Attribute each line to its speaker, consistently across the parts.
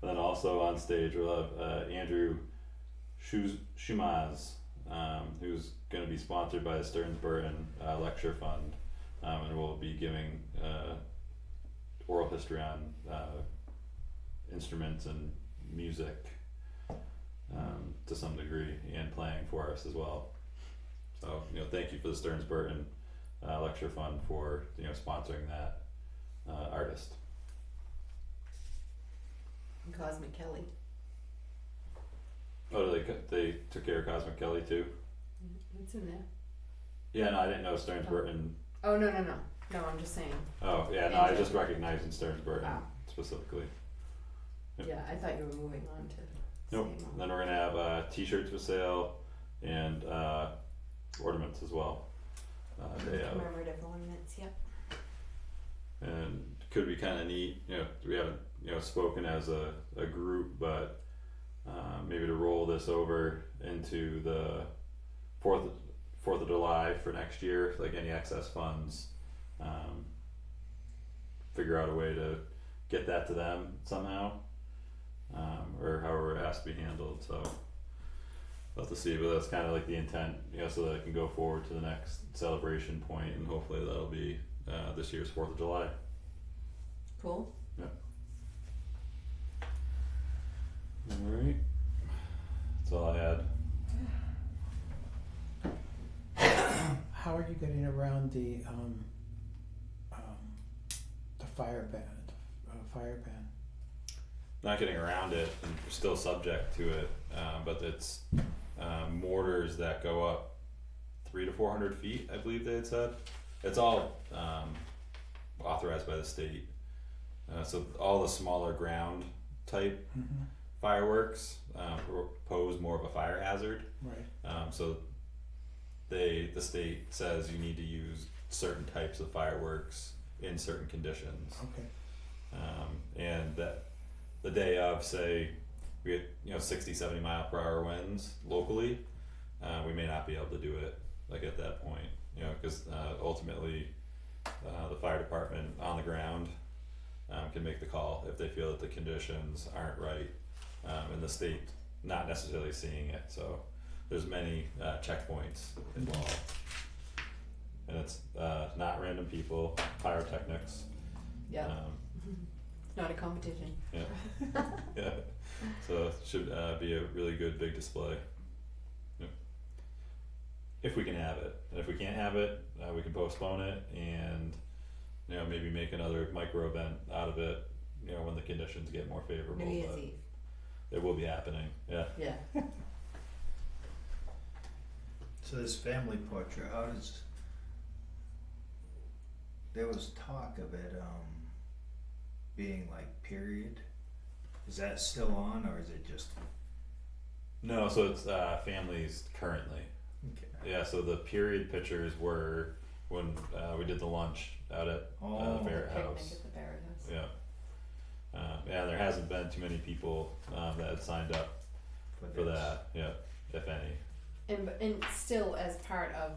Speaker 1: But then also on stage we'll have uh, Andrew Schuz- Schumaz, um, who's going to be sponsored by the Stearns Burton uh, Lecture Fund, um, and will be giving uh, oral history on uh, instruments and music um, to some degree, and playing for us as well. So you know, thank you for the Stearns Burton uh, Lecture Fund for you know sponsoring that uh, artist.
Speaker 2: And Cosmic Kelly.
Speaker 1: Oh, they co- they took care of Cosmic Kelly too.
Speaker 2: Yeah, It's in there.
Speaker 1: Yeah, no, I didn't know Stearns Burton.
Speaker 2: Oh, no, no, no. No, I'm just saying.
Speaker 1: Oh, yeah, no, I was just recognizing Stearns Burton
Speaker 2: Wow.
Speaker 1: specifically. Yep.
Speaker 2: Yeah, I thought you were moving on to.
Speaker 1: Nope.
Speaker 2: same
Speaker 1: Then we're gonna have uh, T-shirts for sale and uh, ornaments as well. Uh, day of.
Speaker 2: Commemorative ornaments, yep.
Speaker 1: and could be kind of neat. You know, we haven't you know spoken as a, a group, but uh, maybe to roll this over into the fourth Fourth of July for next year, like any excess funds, um, figure out a way to get that to them somehow, um, or however it has to be handled. So. We'll have to see, but that's kind of like the intent, you know, so that it can go forward to the next celebration point, and hopefully that'll be uh, this year's Fourth of July.
Speaker 2: Cool.
Speaker 1: Alright. That's all I had.
Speaker 3: How are you getting around the um, um, the fire ban? Uh, fire ban.
Speaker 1: Not getting around it, and we're still subject to it, uh, but it's uh, mortars that go up three to four hundred feet, I believe they had said. It's all um, authorized by the state. Uh, so all the smaller ground type
Speaker 3: Mm-hmm.
Speaker 1: fireworks uh, pro- pose more of a fire hazard.
Speaker 3: Right.
Speaker 1: Um, so they the state says you need to use certain types of fireworks in certain conditions.
Speaker 3: Okay.
Speaker 1: Um, and that the day of, say, we get you know 60, 70 mile per hour winds locally, uh, we may not be able to do it like at that point, you know, because uh, ultimately uh, the fire department on the ground um, can make the call if they feel that the conditions aren't right, um, and the state not necessarily seeing it. So there's many uh, checkpoints involved. And it's uh, not random people, pyrotechnics.
Speaker 2: Yeah.
Speaker 1: Um,
Speaker 2: It's not a competition.
Speaker 1: yeah. So it should uh, be a really good big display. Yep. If we can have it, and if we can't have it, uh, we can postpone it and you know maybe make another micro event out of it. You know when the conditions get more favorable,
Speaker 2: New Year's
Speaker 1: but
Speaker 2: Eve.
Speaker 1: it will be happening. Yeah.
Speaker 2: Yeah.
Speaker 4: So this family portrait, how does? There was talk of it um, being like period. Is that still on, or is it just?
Speaker 1: No, so it's uh, families currently.
Speaker 4: Okay.
Speaker 1: Yeah. So the period pictures were when uh, we did the lunch out at uh,
Speaker 4: Oh,
Speaker 1: the Barrett
Speaker 2: Picnic
Speaker 1: House.
Speaker 2: at the Barrett House.
Speaker 1: Yeah. Uh, yeah, there hasn't been too many people um, that have signed up for
Speaker 4: this.
Speaker 1: that. Yeah, if any.
Speaker 2: And, b- and still as part of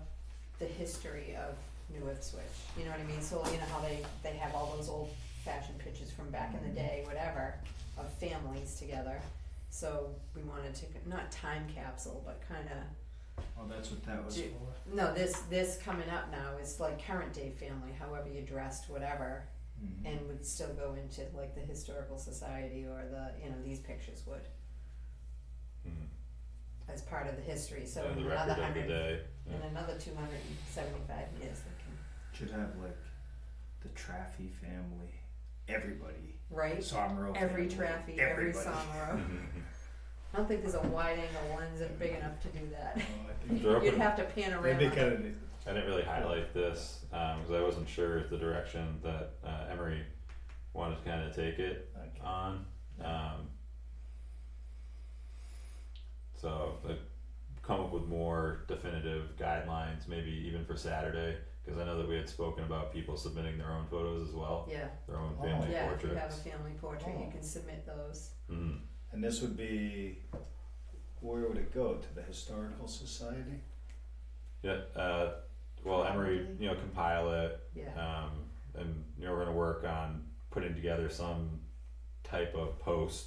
Speaker 2: the history of New Ipswich, you know what I mean? So you know how they, they have all those old fashioned pictures from back in the day, whatever, of families together. So we wanted to, c- not time capsule, but kinda,
Speaker 4: Oh, that's what that was
Speaker 2: Do-
Speaker 4: for.
Speaker 2: no, this, this coming up now is like current day family, however you dressed, whatever.
Speaker 4: Mhm.
Speaker 2: And would still go into like the historical society or the, you know, these pictures would,
Speaker 1: Mm.
Speaker 2: as part of the history, so
Speaker 1: Yeah,
Speaker 2: in
Speaker 1: the record
Speaker 2: another
Speaker 1: of the
Speaker 2: hundred,
Speaker 1: day.
Speaker 2: in another two hundred and seventy-five years, they can
Speaker 4: Should have like the Traffy family, everybody,
Speaker 2: Right?
Speaker 4: Somro
Speaker 2: Every
Speaker 4: family,
Speaker 2: Traffy, every
Speaker 4: everybody.
Speaker 2: Somro.
Speaker 1: Mm-hmm.
Speaker 2: I don't think there's a wide angle lens that big enough to do that.
Speaker 4: Oh, I think
Speaker 1: They're
Speaker 2: You'd
Speaker 1: open.
Speaker 2: have to
Speaker 4: they
Speaker 2: panorama.
Speaker 4: make it.
Speaker 1: I didn't really highlight this because I wasn't sure the direction that uh, Emery wanted to kind of take it.
Speaker 4: Okay.
Speaker 1: on. Um, so like, come up with more definitive guidelines, maybe even for Saturday, because I know that we had spoken about people submitting their own photos as well,
Speaker 2: Yeah,
Speaker 1: their own
Speaker 4: Oh.
Speaker 1: family
Speaker 2: yeah, if you have a
Speaker 1: portraits.
Speaker 2: family portrait, you
Speaker 4: Oh.
Speaker 2: can submit those.
Speaker 1: Mhm.
Speaker 4: And this would be, where would it go? To the Historical Society?
Speaker 1: Yeah. Uh, well, Emery,
Speaker 2: Probably.
Speaker 1: you know, compile it,
Speaker 2: Yeah,
Speaker 1: um, and you know, we're gonna work on putting together some type of post